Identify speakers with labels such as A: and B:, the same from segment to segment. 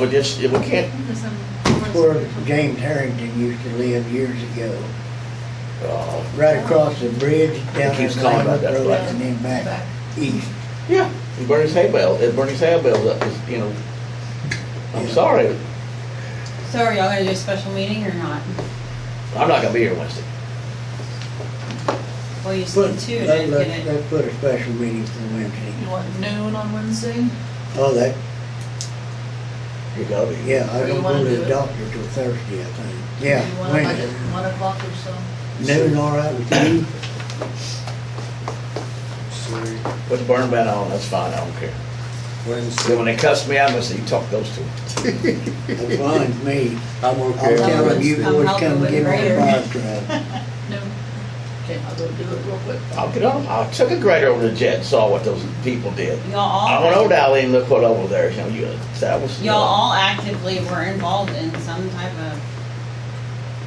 A: We Oh, just, if we can't,
B: It's
C: Where James Harrington used to live years ago,
A: oh,
C: right across the bridge down
A: He keeps
C: at
A: calling about
C: Lambert
A: that
C: Road
A: place.
C: and then back east.
A: yeah, and Bernie's hay bale, and Bernie's hay bale's up, it's, you know, I'm
C: Yeah.
A: sorry,
D: So are y'all gonna do a special meeting or not?
A: I'm not gonna be here Wednesday.
D: Well, you said
C: Put-
D: two and
C: let-
D: didn't
C: let-
D: get it.
C: Let's put a special meeting for Wednesday.
B: You want noon on Wednesday?
C: Oh, that,
A: You gotta be.
C: yeah, I
B: Or you
C: don't
B: wanna
C: go to
B: do
C: the
B: it?
C: doctor till Thursday, I think.
B: You
C: Yeah,
B: want like
C: Wednesday.
B: at one o'clock or so?
C: Noon, all right with you?
E: Sorry,
A: Put the burn ban on, that's fine, I don't care. Then
E: Wednesday.
A: when they cuss me out, I'm gonna say, you talk to those two.
C: That's fine with me.
E: I'm
C: I'll
E: okay.
C: tell them you
D: I'm
C: boys
D: helping
C: come
D: with
C: give me
D: Raider.
C: a fire truck.
B: Noon. Okay, I'll go do it real quick.
A: I'll get on, I took a grader over the jet and saw what those people did.
D: Y'all
A: I went over
D: all,
A: to Allen and looked what over there, you know, you, that was.
D: y'all all actively were involved in some type of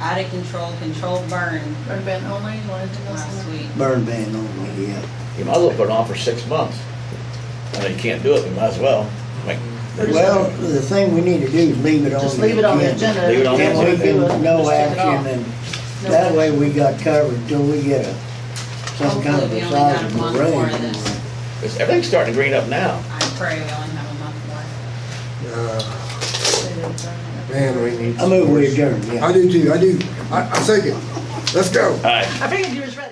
D: out of control, controlled burn
B: Red band only, you want anything else?
D: last week.
C: Burn ban only, yeah.
A: You might as well put it on for six months. I mean, you can't do it, you might as well. Like, there's-
C: Well, the thing we need to do is leave it on the
B: Just
C: agenda.
B: leave it on the agenda.
A: Leave it on the
C: And we
A: agenda.
C: can, no
B: Just take it off.
C: action, and that way we got covered till we get a, some kind of
D: Hopefully we
C: a
D: only got a
C: sizable
D: month more of
C: raise.
D: this.
A: It's, everything's starting to green up now.
D: I pray we only have a month
E: Uh,
D: left.
B: I
E: Man, we need.
C: I move we adjourn, yeah.
E: I do too, I do. I, I second. Let's go.
A: All right.
B: figured you was ready.